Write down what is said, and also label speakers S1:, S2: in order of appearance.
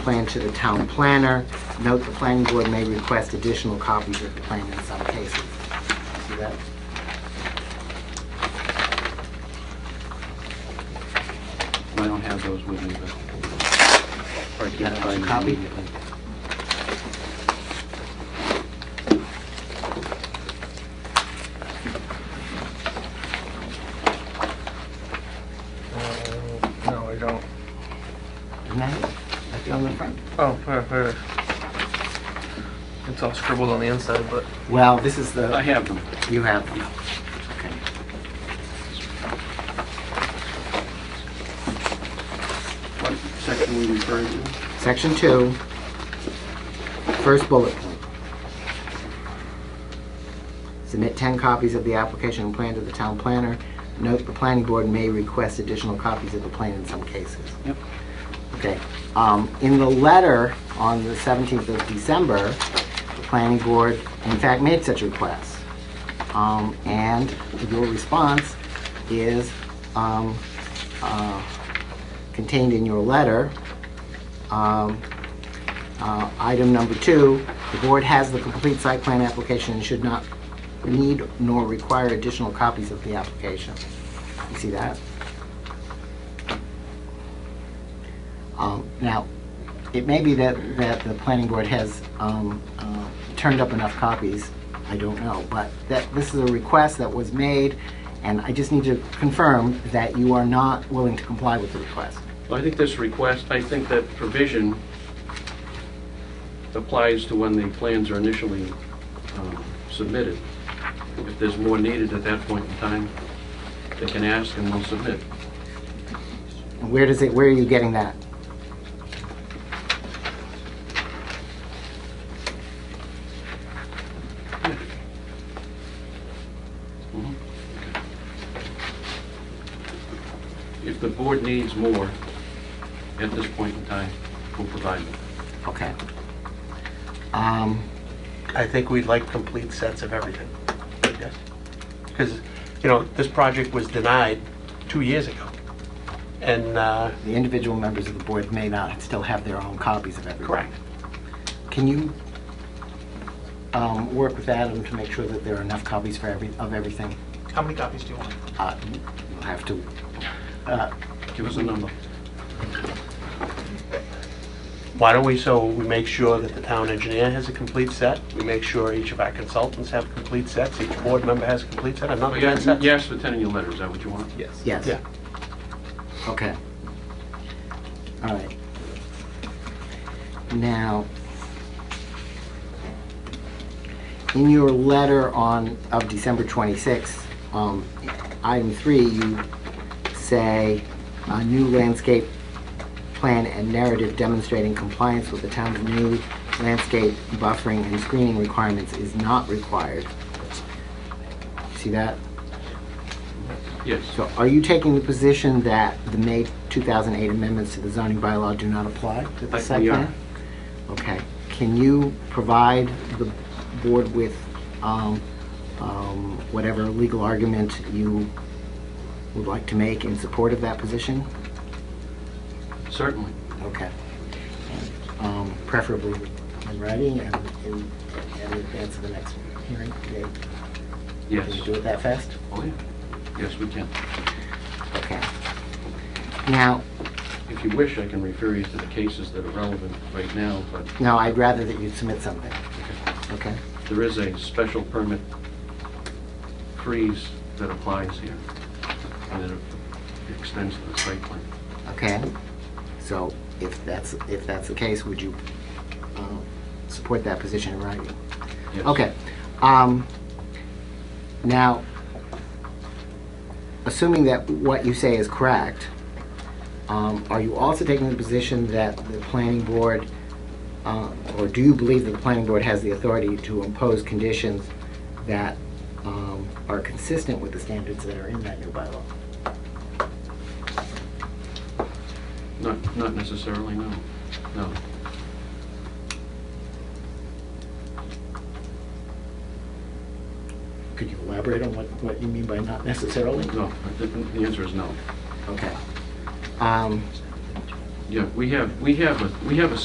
S1: plan to the town planner. Note, the planning board may request additional copies of the plan in some cases. See that?
S2: I don't have those with me, but... or I can
S1: Yeah,
S2: find them
S1: copy.
S2: immediately.
S3: Uh, No, I don't.
S1: Isn't that it? That's on the front.
S3: Oh, here, here. It's all scribbled on the inside, but
S1: Well, this is the...
S2: I have them.
S1: You have them. Okay.
S2: What section we referring to?
S1: Section two, first bullet point. Submit 10 copies of the application and plan to the town planner. Note, the planning board may request additional copies of the plan in some cases.
S2: Yep.
S1: Okay. Um, In the letter on the 17th of December, the planning board, in fact, made such requests. Um, And your response is um, uh, contained in your letter. Um, uh, Item number two, the board has the complete site plan application and should not need nor require additional copies of the application. You see that? Um, Now, it may be that, that the planning board has um, uh, turned up enough copies, I don't know, but that, this is a request that was made, and I just need to confirm that you are not willing to comply with the request.
S2: Well, I think this request, I think that provision applies to when the plans are initially um, submitted. If there's more needed at that point in time, they can ask and we'll submit.
S1: And Where does it, where are you getting that?
S2: Mm-hmm. If the board needs more at this point in time, we'll provide them.
S1: Okay. Um,
S4: I think we'd like complete sets of everything. Because, you know, this project was denied two years ago. And, uh,
S1: The individual members of the board may not still have their own copies of everything.
S4: correct.
S1: Can you um, work with Adam to make sure that there are enough copies for every, of everything?
S5: How many copies do you want?
S1: Uh, You'll have to, uh,
S2: Give us a number.
S4: Why don't we, so we make sure that the town engineer has a complete set, we make sure each of our consultants have complete sets, each board member has a complete set, another
S2: You
S4: ten sets?
S2: asked for 10 in your letter, is that what you want?
S3: yes.
S1: yes.
S4: Yeah.
S1: Okay. All right. Now, in your letter on, of December 26th, um, item three, you say, "A new landscape plan and narrative demonstrating compliance with the town's new landscape buffering and screening requirements is not required." See that?
S2: Yes.
S1: So are you taking the position that the May 2008 amendments to the zoning bylaw do not apply to the
S2: I-
S1: site
S2: we are.
S1: plan? Okay. Can you provide the board with um, um, whatever legal argument you would like to make in support of that position?
S2: Certainly.
S1: Okay. Um, Preferably in writing and in and in advance of the next hearing date?
S2: Yes.
S1: Can you do it that fast?
S2: Oh, yeah. Yes, we can.
S1: Okay. Now,
S2: If you wish, I can refer you to the cases that are relevant right now, but
S1: No, I'd rather that you submit something. Okay?
S2: there is a special permit freeze that applies here, and it extends to the site plan.
S1: Okay? So if that's, if that's the case, would you um, support that position in writing?
S2: Yes.
S1: Okay. Um, Now, assuming that what you say is correct, um, are you also taking the position that the planning board, uh, or do you believe that the planning board has the authority to impose conditions that um, are consistent with the standards that are in that new bylaw?
S2: Not, not necessarily, no. No.
S1: Could you elaborate on what, what you mean by not necessarily?
S2: No. The the answer is no.
S1: Okay. Um,
S2: Yeah, we have, we have, a we have a